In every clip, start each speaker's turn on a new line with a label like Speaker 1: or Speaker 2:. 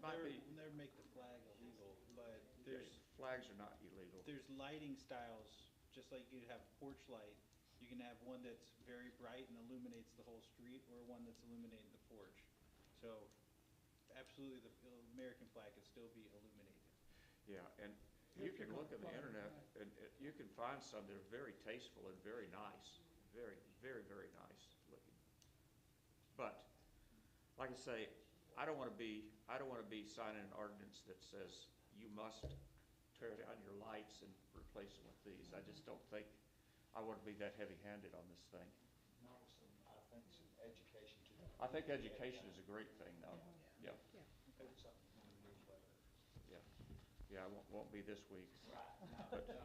Speaker 1: might
Speaker 2: never-
Speaker 1: be-
Speaker 2: We'll never make the flag illegal, but there's,
Speaker 1: Flags are not illegal.
Speaker 2: there's lighting styles, just like you have a porch light. You can have one that's very bright and illuminates the whole street, or one that's illuminating the porch. So absolutely, the American flag can still be illuminated.
Speaker 1: Yeah, and you can look on the internet and uh, you can find some that are very tasteful and very nice, very, very, very nice looking. But, like I say, I don't want to be, I don't want to be signing an ordinance that says you must tear down your lights and replace them with these. I just don't think, I want to be that heavy-handed on this thing.
Speaker 3: Not with some, I think some education to them.
Speaker 1: I think education is a great thing, though. Yeah,
Speaker 4: Yeah.
Speaker 3: Put something in the newsletter.
Speaker 1: yeah. Yeah, I won't, won't be this week.
Speaker 3: Right, no,
Speaker 1: But-
Speaker 3: no.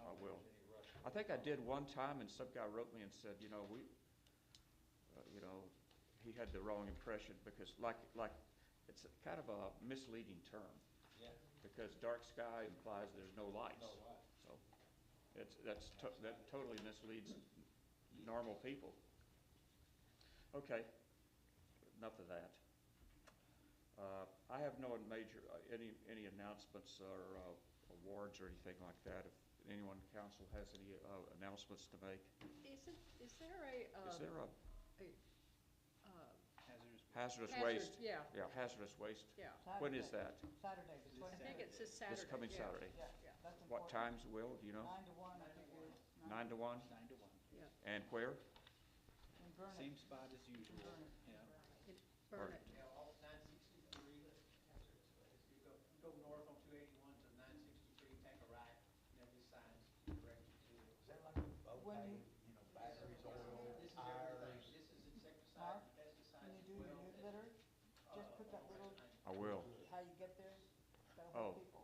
Speaker 1: I
Speaker 3: don't think
Speaker 1: will.
Speaker 3: there's any rush.
Speaker 1: I think I did one time, and some guy wrote me and said, you know, we, uh, you know, he had the wrong impression, because like, like, it's kind of a misleading term,
Speaker 3: Yeah,
Speaker 1: because dark sky implies there's no lights.
Speaker 3: No light.
Speaker 1: So, it's, that's, to- that totally misleads normal people. Okay, enough of that. Uh, I have no major, uh, any, any announcements or uh, awards or anything like that. If anyone in council has any uh, announcements to make.
Speaker 4: Isn't, is there a?
Speaker 1: Is there a
Speaker 4: a, uh,
Speaker 2: Hazardous.
Speaker 1: hazardous
Speaker 4: Hazard-
Speaker 1: waste?
Speaker 4: yeah.
Speaker 1: Yeah, hazardous waste.
Speaker 4: Yeah,
Speaker 1: When is that?
Speaker 5: Saturday, the
Speaker 2: This
Speaker 4: I
Speaker 5: 25th.
Speaker 4: think it's this Saturday.
Speaker 1: This coming
Speaker 4: yeah.
Speaker 1: Saturday.
Speaker 5: Uh, Yeah, yeah, that's
Speaker 1: What
Speaker 5: important.
Speaker 1: times, Will, do you know?
Speaker 5: Nine to one, I think it is.
Speaker 1: Nine to one?
Speaker 2: Nine to one.
Speaker 4: Yeah,
Speaker 1: And where?
Speaker 5: In Vernon.
Speaker 2: Same spot as usual, yeah.
Speaker 4: It- burn it.
Speaker 6: Yeah, off nine sixty-three, you go, you go north on two eighty-one to nine sixty-three, take a right, and there'll be signs directed to it.
Speaker 3: Is that like a boat
Speaker 5: When
Speaker 3: pay,
Speaker 5: you-
Speaker 3: you know, batteries, oil,
Speaker 6: This is
Speaker 3: tires?
Speaker 6: everything, this is
Speaker 5: Mark,
Speaker 6: insecticides,
Speaker 5: When
Speaker 6: pesticides.
Speaker 5: you do your
Speaker 6: well, uh,
Speaker 5: newsletter, just put that little,
Speaker 1: I will.
Speaker 5: how you get there, that'll
Speaker 1: Oh.
Speaker 5: help people.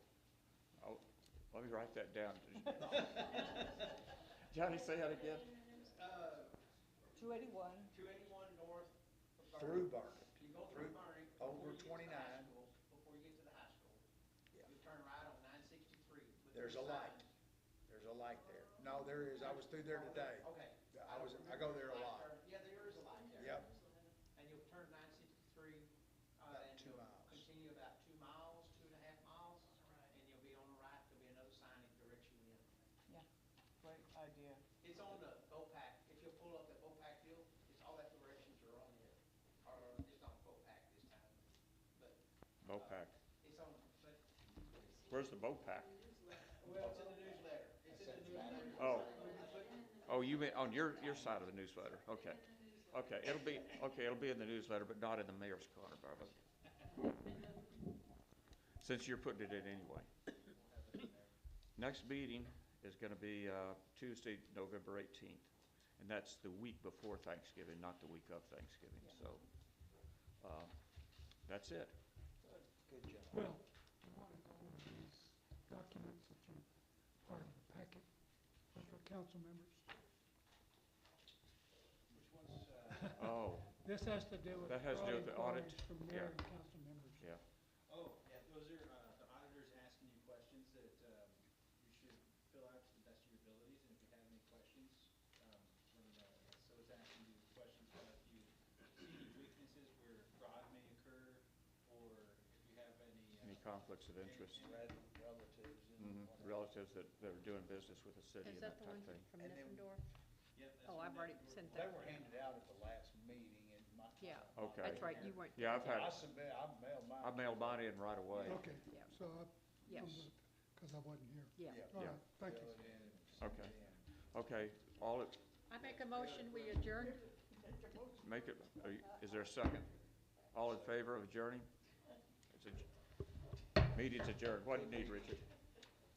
Speaker 1: I'll- Let me write that down. Johnny, say that again?
Speaker 6: Uh,
Speaker 5: Two eighty-one,
Speaker 6: two eighty-one north. of
Speaker 3: Through
Speaker 6: Vernon.
Speaker 3: Burke.
Speaker 6: You go
Speaker 3: Through-
Speaker 6: through Vernon.
Speaker 3: over
Speaker 6: before you get to the high
Speaker 3: 29.
Speaker 6: school- Before you get to the high school.
Speaker 3: Yeah.
Speaker 6: You turn right on nine sixty-three.
Speaker 3: There's a light. There's a light there. No, there is. I was through there today.
Speaker 6: Okay.
Speaker 3: I was, I go there a lot.
Speaker 6: Yeah, there is a light there.
Speaker 3: Yep.
Speaker 6: and you'll turn nine sixty-three, uh,
Speaker 3: About
Speaker 6: and
Speaker 3: two
Speaker 6: you'll
Speaker 3: miles.
Speaker 6: continue about two miles, two and a half miles, and you'll be on the right, there'll be another sign that directs you in.
Speaker 5: yeah, great idea.
Speaker 6: It's on the Bopac, if you pull up the Bopac deal, it's all that directions are on there, or it's on Bopac this time, but. uh,
Speaker 1: Mopac.
Speaker 6: It's on, but,
Speaker 1: Where's the Mopac?
Speaker 6: well, it's in the newsletter, it's in the newsletter.
Speaker 1: Oh, oh, you mean, on your, your side of the newsletter, okay. Okay, it'll be, okay, it'll be in the newsletter, but not in the mayor's corner, Barbara. Since you're putting it in anyway. Next meeting is gonna be, uh, Tuesday, November eighteenth, and that's the week before Thanksgiving, not the week of Thanksgiving, so, uh, that's it.
Speaker 3: Good job.
Speaker 7: Well, you want to go over these documents that you, part of the packet for council members.
Speaker 6: Which one's, uh?
Speaker 1: Oh,
Speaker 7: This has to do with.
Speaker 1: That has to do with the
Speaker 7: fraud
Speaker 1: audit,
Speaker 7: inquiries From
Speaker 1: yeah.
Speaker 7: mayor and council members.
Speaker 1: yeah,
Speaker 2: Oh, yeah, those are, uh, the auditors asking you questions that, um, you should fill out to the best of your abilities, and if you have any questions, um, let me know. So it's asking you questions about if you see any weaknesses where fraud may occur, or if you have any. uh,
Speaker 1: any conflicts of interest?
Speaker 3: Red relatives and
Speaker 1: Mhm,
Speaker 3: whatever.
Speaker 1: relatives that, that are doing business with the city
Speaker 4: Is
Speaker 1: and that
Speaker 4: that the
Speaker 1: type
Speaker 4: one
Speaker 1: of thing.
Speaker 4: from
Speaker 3: And then-
Speaker 4: Niffendorf?
Speaker 2: Yep, that's
Speaker 4: Oh,
Speaker 2: what
Speaker 4: I've
Speaker 2: they
Speaker 4: already
Speaker 2: were-
Speaker 4: sent
Speaker 3: They
Speaker 4: that.
Speaker 3: were handed out at the last meeting and my.
Speaker 4: Yeah,
Speaker 1: Okay.
Speaker 4: that's right, you weren't.
Speaker 1: Yeah, I've had-
Speaker 3: I submit, I mailed mine.
Speaker 1: I mailed mine in right away.
Speaker 7: Okay,
Speaker 4: Yeah.
Speaker 7: so I,
Speaker 4: Yes.
Speaker 7: because I wasn't here.
Speaker 4: Yeah.
Speaker 7: All
Speaker 1: Yeah.
Speaker 7: right, thank you.
Speaker 3: Mailed it in and sent it
Speaker 1: Okay.
Speaker 3: in.
Speaker 1: Okay, all, it
Speaker 4: I make a motion, we adjourn.
Speaker 1: make it, are you- is there a second? All in favor of adjourning? It's adj- Meeting's adjourned. What do you need, Richard?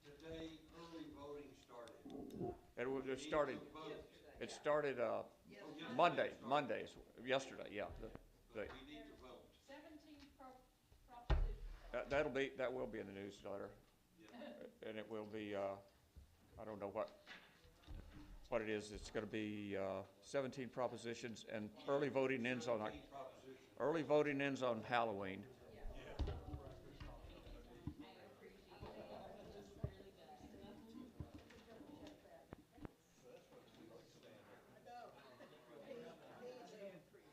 Speaker 8: Today, early voting started.
Speaker 1: It was, it started,
Speaker 8: Yesterday.
Speaker 1: it started, uh, Monday, Mondays, yesterday, yeah. the-
Speaker 8: But
Speaker 1: the-
Speaker 8: we need to vote.
Speaker 9: Seventeen pro- propositions.
Speaker 1: That, that'll be, that will be in the newsletter. And it will be, uh, I don't know what, what it is. It's gonna be, uh, seventeen propositions and early voting ends on, Oc-
Speaker 8: Proposition.
Speaker 1: Early voting ends on Halloween,